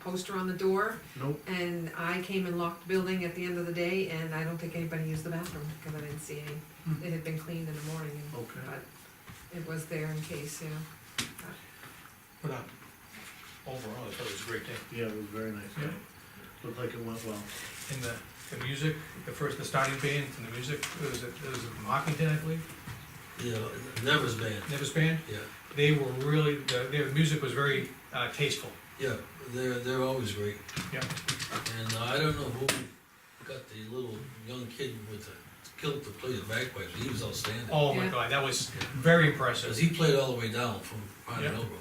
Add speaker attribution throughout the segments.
Speaker 1: poster on the door,
Speaker 2: Nope,
Speaker 1: and I came and locked the building at the end of the day, and I don't think anybody used the bathroom, because I didn't see any. It had been cleaned in the morning, and-
Speaker 2: okay.
Speaker 1: but it was there in case, you know.
Speaker 3: But uh, overall, I thought it was a great day.
Speaker 2: Yeah, it was very nice, yeah.
Speaker 3: Yeah.
Speaker 2: Looked like it went well.
Speaker 3: And the, the music, the first, the starting band and the music, it was, it was from Hopkinton, I believe,
Speaker 4: Yeah, Nevers Band,
Speaker 3: Nevis Band.
Speaker 4: yeah,
Speaker 3: They were really, the- their music was very uh, tasteful.
Speaker 4: yeah, they're, they're always great.
Speaker 3: Yeah.
Speaker 4: And uh, I don't know who got the little young kid with the kilt to play the bagpipes, he was outstanding.
Speaker 3: Oh my
Speaker 1: Yeah.
Speaker 3: God, that was very impressive.
Speaker 4: Cause he played all the way down from Pine
Speaker 3: Yeah.
Speaker 4: Hill Road.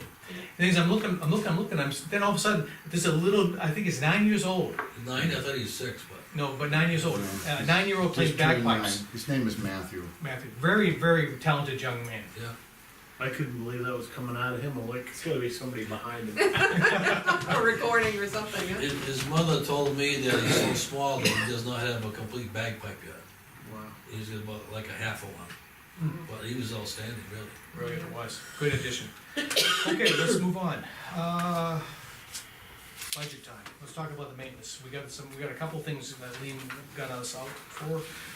Speaker 3: Things I'm looking, I'm looking, I'm looking, I'm, s- then all of a sudden, there's a little, I think he's nine years old,
Speaker 4: Nine, I thought he was six, but
Speaker 3: no, but nine years old,
Speaker 5: Yeah.
Speaker 3: uh, nine-year-old plays
Speaker 5: Just turned
Speaker 3: bagpipes.
Speaker 5: nine. His name is Matthew.
Speaker 3: Matthew, very, very talented young man.
Speaker 4: yeah,
Speaker 2: I couldn't believe that was coming out of him, I'm like, it's gotta be somebody behind him.
Speaker 1: A recording or something, huh?
Speaker 4: his, his mother told me that he's so small that he does not have a complete bagpipe yet.
Speaker 2: Wow.
Speaker 4: He's got about like a half of one,
Speaker 3: Hmm.
Speaker 4: but he was outstanding, really.
Speaker 3: Really, it was, good addition. Okay, let's move on. Uh, Budget time, let's talk about the maintenance, we got some, we got a couple things that Lean got us out for,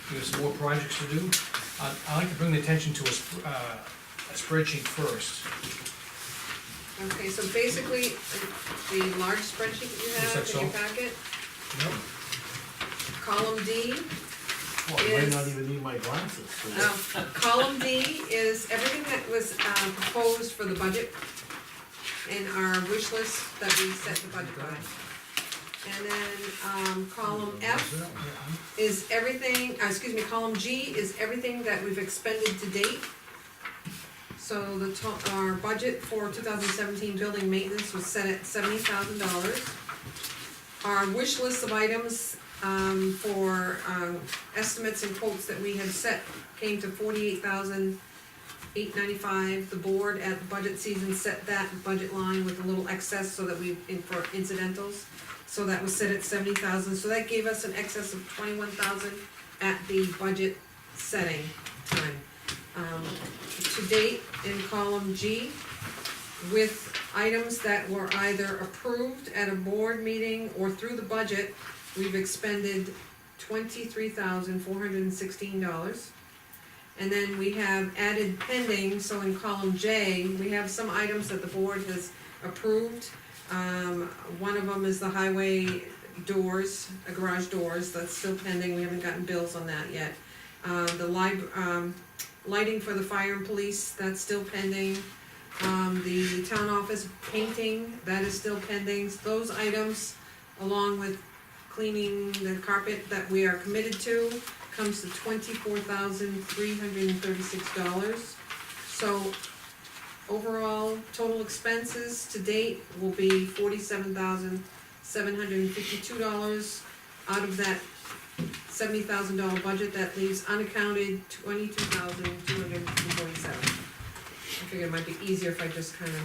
Speaker 3: we have some more projects to do. Uh, I'd like to bring the attention to a sp- uh, a spreadsheet first,
Speaker 1: Okay, so basically, the large spreadsheet that you
Speaker 3: Is
Speaker 1: have
Speaker 3: that
Speaker 1: in your
Speaker 3: so?
Speaker 1: packet,
Speaker 3: Yep.
Speaker 1: column D,
Speaker 2: Well, I might
Speaker 1: Is-
Speaker 2: not even need my glasses. so-
Speaker 1: No, Um, column D is everything that was uh, proposed for the budget in our wish list that we set the budget by. And then, um, column F is everything, uh, excuse me, column G is everything that we've expended to date. So the to, our budget for two thousand seventeen building maintenance was set at seventy thousand dollars. Our wish list of items, um, for, um, estimates and quotes that we had set came to forty-eight thousand eight ninety-five. The board at the budget season set that budget line with a little excess so that we, in- for incidentals. So that was set at seventy thousand, so that gave us an excess of twenty-one thousand at the budget setting time. Um, to date, in column G, with items that were either approved at a board meeting or through the budget, we've expended twenty-three thousand four hundred and sixteen dollars. And then we have added pending, so in column J, we have some items that the board has approved. Um, one of them is the highway doors, uh, garage doors, that's still pending, we haven't gotten bills on that yet. Uh, the lib, um, lighting for the fire and police, that's still pending. Um, the town office painting, that is still pending, those items, along with cleaning the carpet that we are committed to, comes to twenty-four thousand three hundred and thirty-six dollars. So overall, total expenses to date will be forty-seven thousand seven hundred and fifty-two dollars. Out of that seventy thousand dollar budget, that leaves unaccounted twenty-two thousand two hundred and forty-seven. I figured it might be easier if I just kind of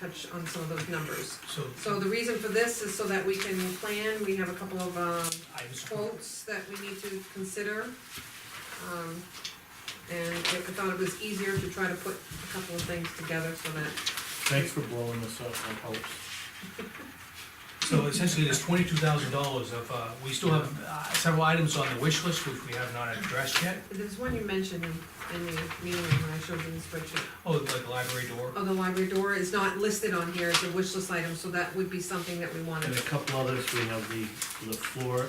Speaker 1: touch on some of those numbers.
Speaker 3: so.
Speaker 1: So the reason for this is so that we can plan, we have a couple of, um,
Speaker 3: I just-
Speaker 1: quotes that we need to consider. Um, and I thought it was easier to try to put a couple of things together so that
Speaker 2: Thanks for blowing this up, that helps.
Speaker 3: So essentially, there's twenty-two thousand dollars of, uh, we still have uh, several items on the wish list which we have not addressed yet.
Speaker 1: There's one you mentioned in, in the meeting when I showed you the spreadsheet.
Speaker 3: Oh, like library door.
Speaker 1: Oh, the library door is not listed on here as a wish list item, so that would be something that we wanted.
Speaker 2: And a couple others, we have the, the floor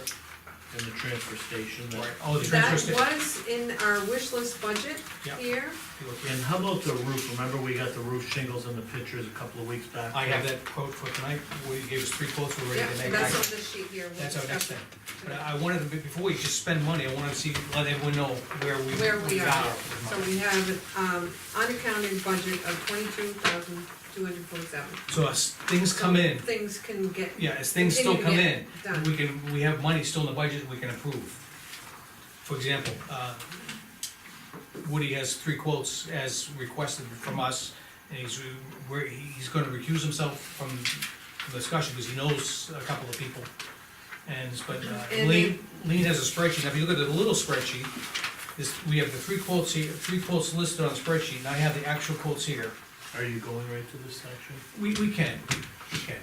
Speaker 2: and the transfer station. that-
Speaker 3: Right, oh, the
Speaker 1: That
Speaker 3: transfer station.
Speaker 1: was in our wish list budget
Speaker 3: Yep.
Speaker 1: here. Oh.
Speaker 2: And how about the roof? Remember, we got the roof shingles in the pictures a couple of weeks back?
Speaker 3: I have that quote for tonight, where you gave us three quotes,
Speaker 1: Yep,
Speaker 3: we're ready to
Speaker 1: so
Speaker 3: make
Speaker 1: that's
Speaker 3: action.
Speaker 1: on this sheet here. We'll
Speaker 3: That's our next
Speaker 1: discuss
Speaker 3: thing. But I I wanted, to be- before we just spend money, I wanted to see, let everyone know where we.
Speaker 1: Where we are.
Speaker 3: with
Speaker 1: So
Speaker 3: money.
Speaker 1: we have, um, unaccounted budget of twenty-two thousand two hundred forty-seven.
Speaker 3: So as things come in,
Speaker 1: Things can get,
Speaker 3: yeah, as things still come
Speaker 1: Continue to
Speaker 3: in,
Speaker 1: get done.
Speaker 3: we can, we have money still in the budget we can approve. For example, uh, Woody has three quotes as requested from us, and he's, re- where, he's gonna recuse himself from the discussion, because he knows a couple of people. And, but uh,
Speaker 1: And
Speaker 3: Lean, Lean has a spreadsheet, now if you look at the little spreadsheet, this, we have the three quotes here, three quotes listed on the spreadsheet, and I have the actual quotes here.
Speaker 2: Are you going right to this section?
Speaker 3: We, we can, we can.